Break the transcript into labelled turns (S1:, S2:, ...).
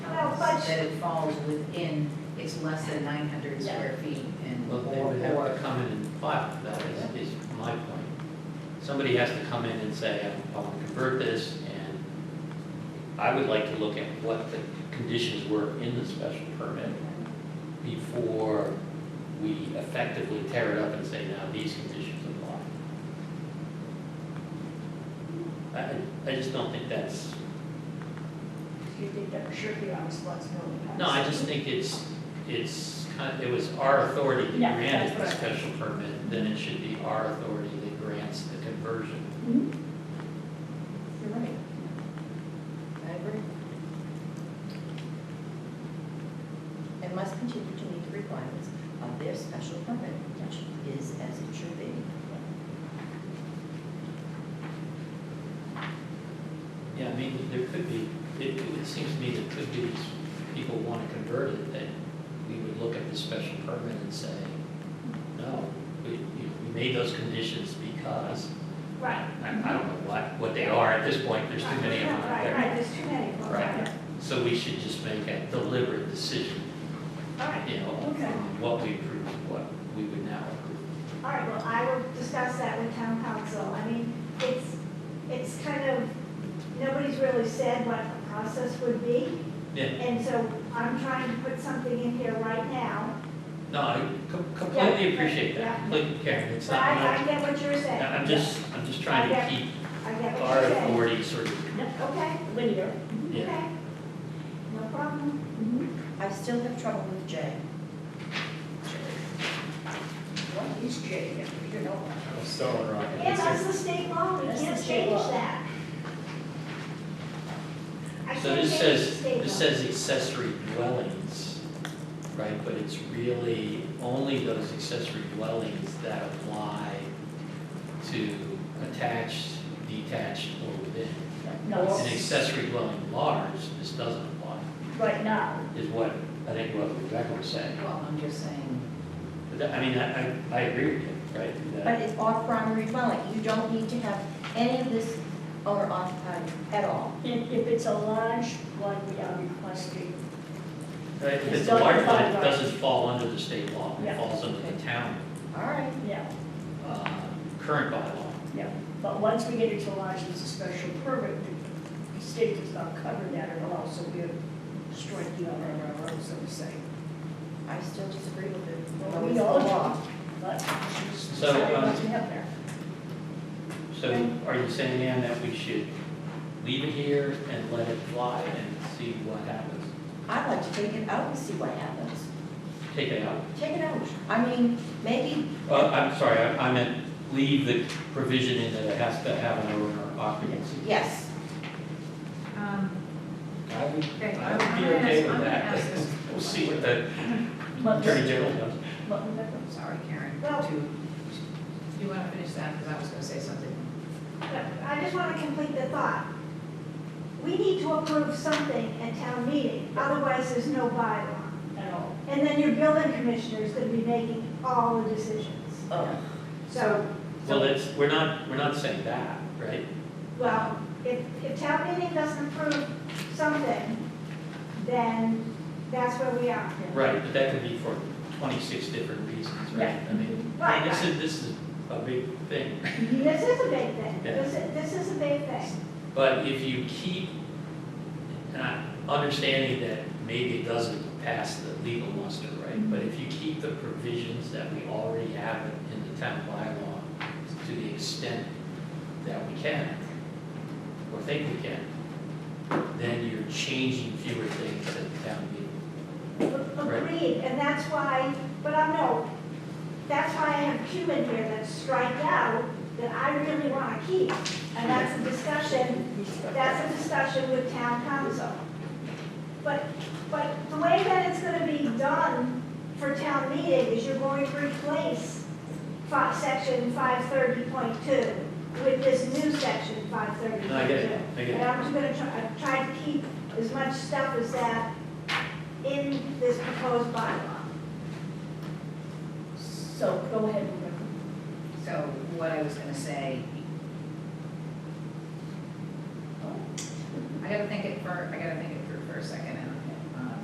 S1: much-
S2: that it falls within, it's less than nine hundred
S1: Yeah.
S2: square feet and.
S3: Well, they would have to come in and file, that is, is my point. Somebody has to come in and say, I want to convert this, and I would like to look at what the conditions were in the special permit before we effectively tear it up and say, now, these conditions apply. I, I just don't think that's,
S1: Do you think that should be our responsibility?
S3: no, I just think it's, it's kind, it was our authority that
S1: Yeah,
S3: granted the
S1: that's what I-
S3: special permit, then it should be our authority that grants the conversion.
S1: You're right.
S4: I agree. And must continue to meet the requirements of their special permit, which is as it should be.
S3: Yeah, I mean, there could be, it, it seems to me that could be, these people want to convert it, that we would look at the special permit and say, no, we, you know, we made those conditions because,
S1: Right.
S3: I, I don't know what, what they are at this point, there's too many of them out
S1: Right,
S3: there.
S1: right, there's too many. Well,
S3: Right. So we should just make a deliberate decision,
S1: All right,
S3: you know,
S1: Okay.
S3: on what we approve, and what we would now approve.
S1: all right, well, I will discuss that with town council. I mean, it's, it's kind of, nobody's really said what the process would be.
S3: Yeah,
S1: And so I'm trying to put something in here right now.
S3: no, I com- completely
S1: Yeah.
S3: appreciate that,
S1: Yeah.
S3: completely, Karen, it's
S1: But
S3: not,
S1: I,
S3: I'm
S1: I get what you're saying.
S3: not- I'm just, I'm just trying to
S1: I get-
S3: keep
S1: I
S3: our
S1: get what you're saying.
S3: authority sort of
S1: Okay,
S4: Linear.
S3: Yeah.
S1: okay. No problem.
S4: I still have trouble with J. What is J? You know.
S5: I'm still in rock.
S1: Yeah, that's the state law, we
S4: That's the
S1: can't
S4: state
S1: change
S4: law.
S1: that. I
S3: So
S1: can't
S3: this
S1: change the
S3: says,
S1: state
S3: this
S1: law.
S3: says accessory dwellings, right, but it's really only those accessory dwellings that apply to attached, detached, or within. An accessory dwelling large, this doesn't apply,
S4: right now.
S3: is what I think what Rebecca was saying.
S2: Well, I'm just saying,
S3: But that- I mean, I, I, I agree with you, right?
S4: But
S3: that-
S4: it's off primary dwelling. You don't need to have any of this owner occupied at all.
S6: If, if it's a large one, we are requesting,
S3: Right, uh, if it's
S6: it's
S3: a
S6: not
S3: large one,
S6: defined
S3: it
S6: by-
S3: doesn't fall under the state law, it
S6: Yeah.
S3: falls under the town,
S4: All right.
S6: yeah,
S3: uh, current bylaw.
S6: yeah. But once we get into large, it's a special permit, the state does not cover that at all, so we're striking out our own, so to say.
S4: I still disagree with it.
S6: Well, we
S4: It's the
S6: all-
S4: law.
S6: But it's
S3: So,
S6: decided
S3: um,
S6: what to have there.
S3: So are you saying, Ann, that we should leave it here and let it fly and see what happens?
S4: I'd like to take it out and see what happens.
S3: Take it out?
S4: Take it out. I mean, maybe,
S3: Uh, I'm sorry, I I meant leave the provision in that it has to have an owner occupancy.
S4: yes,
S2: um,
S3: I would,
S2: okay,
S3: I
S2: I'm
S3: would be
S2: gonna
S3: okay
S2: ask, I'm
S3: with
S2: gonna
S3: that.
S2: ask this,
S3: We'll see what the
S6: But
S3: attorney general does.
S6: But remember,
S2: sorry, Karen,
S1: Well-
S2: to, you wanna finish that, because I was gonna say something.
S1: But I just want to complete the thought. We need to approve something at town meeting, otherwise there's no bylaw.
S6: at all.
S1: And then your building commissioner is going to be making all the decisions.
S4: oh,
S1: So,
S3: Well, that's, we're not, we're not saying that, right?
S1: well, if, if town meeting doesn't approve something, then that's where we are.
S3: Right, but that could be for twenty-six different reasons, right? I mean,
S1: Right,
S3: this is, this is a big thing.
S1: This is a big thing,
S3: Yeah.
S1: this is, this is a big thing.
S3: But if you keep, uh, understanding that maybe it doesn't pass the legal muster, right? But if you keep the provisions that we already have in the town bylaw to the extent that we can, or think we can, then you're changing fewer things at the town meeting. Right.
S1: Agreed, and that's why, but I know, that's why I have Q in here that's strike out, that I really want to keep. And that's a discussion, that's a discussion with town council. But, but the way that it's going to be done for town meeting is you're going to replace fi- section five thirty point two with this new section five thirty point two.
S3: No, I get it, I get
S1: And
S3: it.
S1: I'm just gonna try, I've tried to keep as much stuff as that in this proposed bylaw.
S6: So go ahead, Rebecca.
S2: So what I was gonna say. I gotta think it for, I gotta think it through for a second, and um,